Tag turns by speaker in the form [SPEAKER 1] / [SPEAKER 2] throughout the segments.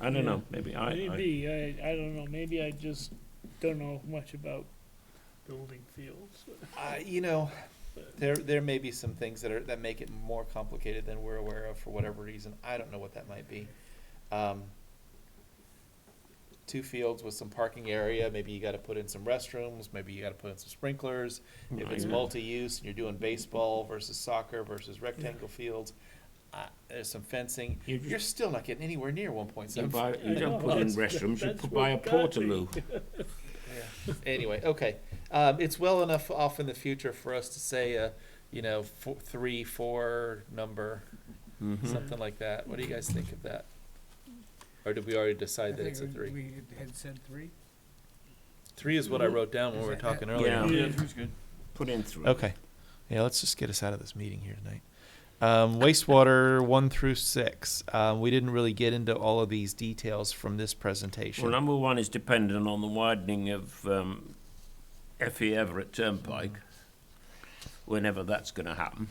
[SPEAKER 1] I don't know, maybe, I, I,
[SPEAKER 2] Maybe, I, I don't know, maybe I just don't know much about building fields.
[SPEAKER 3] Uh, you know, there, there may be some things that are, that make it more complicated than we're aware of for whatever reason. I don't know what that might be. Um, two fields with some parking area, maybe you gotta put in some restrooms, maybe you gotta put in some sprinklers. If it's
[SPEAKER 1] Yeah.
[SPEAKER 3] multi-use, and you're doing baseball versus soccer versus rectangle fields, uh, there's some fencing.
[SPEAKER 1] You
[SPEAKER 3] You're still not getting anywhere near one point
[SPEAKER 1] you
[SPEAKER 3] seven.
[SPEAKER 1] buy, you
[SPEAKER 2] I know,
[SPEAKER 1] don't put in
[SPEAKER 2] that's-
[SPEAKER 1] restrooms, you
[SPEAKER 2] that's
[SPEAKER 1] put buy a
[SPEAKER 2] what got me.
[SPEAKER 1] portaloo.
[SPEAKER 3] Yeah. Anyway, okay. Um, it's well enough off in the future for us to say, uh, you know, four, three, four number,
[SPEAKER 4] Mm-hmm.
[SPEAKER 1] Mhm.
[SPEAKER 3] something like that. What do you guys think of that? Or did we already decide that it's a three?
[SPEAKER 5] We had said three.
[SPEAKER 3] Three is what I wrote down when we were
[SPEAKER 5] Is that-
[SPEAKER 3] talking
[SPEAKER 5] that-
[SPEAKER 3] earlier.
[SPEAKER 1] Yeah.
[SPEAKER 2] Yeah.
[SPEAKER 5] three's good.
[SPEAKER 1] Put in three.
[SPEAKER 3] Okay. Yeah, let's just get us out of this meeting here tonight. Um, wastewater one through six. Um, we didn't really get into all of these details from this presentation.
[SPEAKER 1] Well, number one is dependent on the widening of um, FE Everett Turnpike, whenever that's going to happen.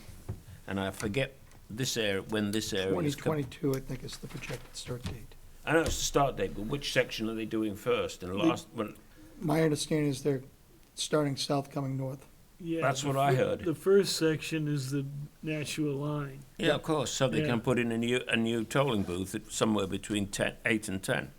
[SPEAKER 1] And I forget this area when this area
[SPEAKER 4] Twenty
[SPEAKER 1] is. com-
[SPEAKER 4] twenty-two, I think is the projected start date.
[SPEAKER 1] I know it's the start date, but which section are they doing first and last? Well,
[SPEAKER 4] My understanding is they're starting south, coming north.
[SPEAKER 2] Yeah,
[SPEAKER 1] That's
[SPEAKER 2] the
[SPEAKER 1] what I
[SPEAKER 2] fir-
[SPEAKER 1] heard.
[SPEAKER 2] The first section is the Nashua line.
[SPEAKER 1] yeah, of course. So they
[SPEAKER 2] Yeah.
[SPEAKER 1] can put in a new a new tolling booth at somewhere between ten, eight and ten.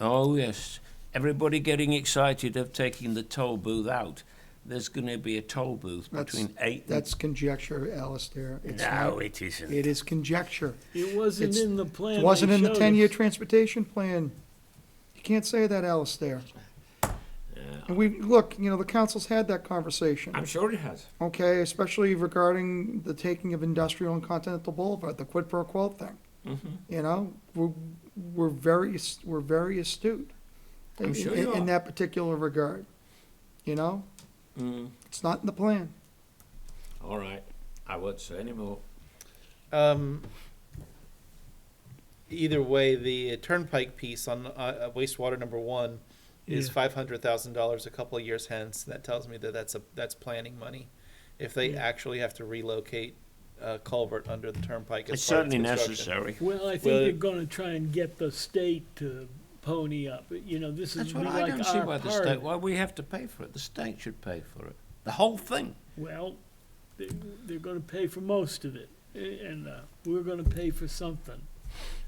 [SPEAKER 1] Oh yes, everybody getting excited of taking the toll booth out. There's going to be a toll booth
[SPEAKER 4] That's-
[SPEAKER 1] between eight.
[SPEAKER 4] That's conjecture, Alistair.
[SPEAKER 1] and,
[SPEAKER 4] It's
[SPEAKER 1] Hmm. no,
[SPEAKER 4] not-
[SPEAKER 1] it isn't.
[SPEAKER 4] It is conjecture.
[SPEAKER 2] It wasn't
[SPEAKER 4] It's-
[SPEAKER 2] in the plan.
[SPEAKER 4] It
[SPEAKER 2] they
[SPEAKER 4] wasn't in the
[SPEAKER 2] showed
[SPEAKER 4] ten-year
[SPEAKER 2] us.
[SPEAKER 4] transportation plan. You can't say that, Alistair.
[SPEAKER 1] Yeah.
[SPEAKER 4] And we, look, you know, the council's had that conversation.
[SPEAKER 1] I'm sure it has.
[SPEAKER 4] okay, especially regarding the taking of industrial and continental boulevard, the quid pro quo thing.
[SPEAKER 1] Mm-hmm.
[SPEAKER 4] You know, we're, we're very, ast- we're very astute.
[SPEAKER 1] I'm
[SPEAKER 4] in-
[SPEAKER 1] sure
[SPEAKER 4] in-
[SPEAKER 1] you are.
[SPEAKER 4] In that particular regard, you know,
[SPEAKER 1] Mm,
[SPEAKER 4] it's not in the plan.
[SPEAKER 1] all right. I won't say any more.
[SPEAKER 3] Um, either way, the turnpike piece on uh, wastewater number one is
[SPEAKER 2] Yeah.
[SPEAKER 3] five hundred thousand dollars a couple of years hence. That tells me that that's a that's planning money. If they
[SPEAKER 2] Yeah.
[SPEAKER 3] actually have to relocate a culvert under the turnpike, as
[SPEAKER 1] It's
[SPEAKER 3] part of
[SPEAKER 1] certainly
[SPEAKER 3] construction.
[SPEAKER 1] necessary.
[SPEAKER 2] Well, I
[SPEAKER 3] Well,
[SPEAKER 2] think they're gonna try and get the state to pony up, you know, this is
[SPEAKER 1] That's
[SPEAKER 2] be
[SPEAKER 1] what I
[SPEAKER 2] like
[SPEAKER 1] don't see
[SPEAKER 2] our
[SPEAKER 1] why the state,
[SPEAKER 2] part.
[SPEAKER 1] why we have to pay for it. The state should pay for it. The whole thing.
[SPEAKER 2] Well, they, they're gonna pay for most of it, a- and, uh, we're gonna pay for something.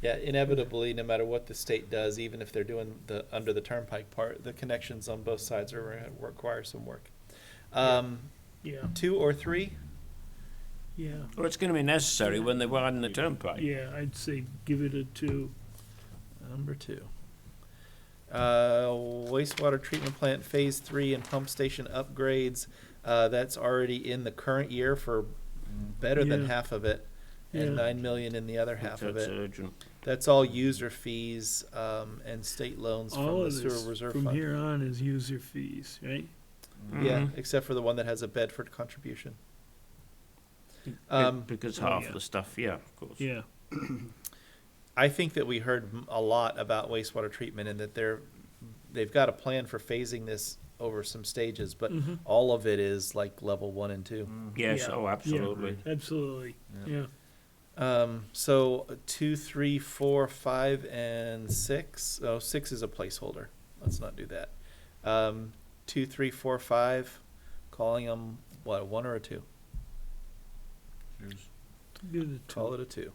[SPEAKER 3] Yeah, inevitably, no matter what the state does, even if they're doing the under the turnpike part, the connections on both sides are gonna require some work. Um,
[SPEAKER 2] Yeah,
[SPEAKER 3] two or three.
[SPEAKER 2] yeah,
[SPEAKER 1] Well, it's going to be necessary when they widen the turnpike.
[SPEAKER 2] yeah, I'd say give it a two.
[SPEAKER 3] Number two. Uh, wastewater treatment plant phase three and pump station upgrades, uh, that's already in the current year for better than
[SPEAKER 2] Yeah.
[SPEAKER 3] half of it. And
[SPEAKER 2] Yeah.
[SPEAKER 3] nine million in the other half
[SPEAKER 1] That's
[SPEAKER 3] of it.
[SPEAKER 1] urgent.
[SPEAKER 3] That's all user fees, um, and state loans from
[SPEAKER 2] All
[SPEAKER 3] the
[SPEAKER 2] of
[SPEAKER 3] sewer
[SPEAKER 2] this,
[SPEAKER 3] reserve
[SPEAKER 2] from
[SPEAKER 3] fund.
[SPEAKER 2] here on is user fees, right?
[SPEAKER 3] Yeah,
[SPEAKER 2] Mm-hmm.
[SPEAKER 1] Mhm.
[SPEAKER 3] except for the one that has a Bedford contribution.
[SPEAKER 1] Be-
[SPEAKER 3] Um,
[SPEAKER 1] because
[SPEAKER 2] oh,
[SPEAKER 1] half
[SPEAKER 2] yeah.
[SPEAKER 1] the stuff, yeah, of course.
[SPEAKER 2] Yeah,
[SPEAKER 3] I think that we heard m- a lot about wastewater treatment and that they're, they've got a plan for phasing this over some stages, but
[SPEAKER 2] Mhm.
[SPEAKER 3] all of it is like level one and two.
[SPEAKER 1] Yes,
[SPEAKER 2] Yeah.
[SPEAKER 1] oh, absolutely.
[SPEAKER 2] absolutely, yeah.
[SPEAKER 3] Um, so two, three, four, five, and six. Oh, six is a placeholder. Let's not do that. Um, two, three, four, five. Calling them what? a One or a two?
[SPEAKER 2] Give it a two.
[SPEAKER 3] Call it a two.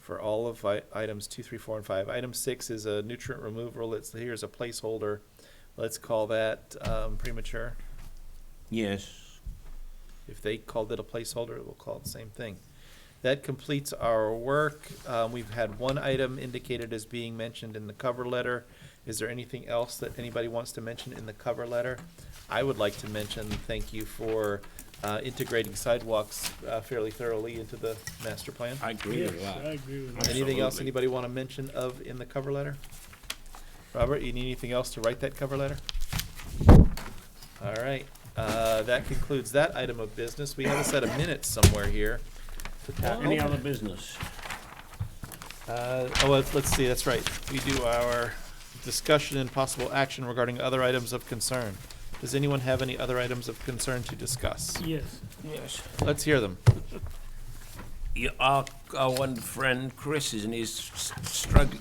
[SPEAKER 3] For all of I- items two, three, four, and five. Item six is a nutrient removal. It's here's a placeholder. Let's call that um, premature.
[SPEAKER 1] Yes.
[SPEAKER 3] If they called it a placeholder, we'll call it the same thing. That completes our work. Um, we've had one item indicated as being mentioned in the cover letter. Is there anything else that anybody wants to mention in the cover letter? I would like to mention, thank you for, uh, integrating sidewalks uh, fairly thoroughly into the master plan.
[SPEAKER 1] I agree
[SPEAKER 2] Yes,
[SPEAKER 1] with
[SPEAKER 2] I
[SPEAKER 1] that.
[SPEAKER 2] agree with that.
[SPEAKER 3] Anything else
[SPEAKER 1] Absolutely.
[SPEAKER 3] anybody want to mention of in the cover letter? Robert, you need anything else to write that cover letter? All right, uh, that concludes that item of business. We have a set of minutes somewhere here. to tackle.
[SPEAKER 1] Any other business?
[SPEAKER 3] Uh, oh, let's, let's see, that's right. We do our discussion and possible action regarding other items of concern. Does anyone have any other items of concern to discuss?
[SPEAKER 2] Yes,
[SPEAKER 1] Yes.
[SPEAKER 3] Let's hear them.
[SPEAKER 1] Yeah, our, our one friend Chris is, and he's s- struggling,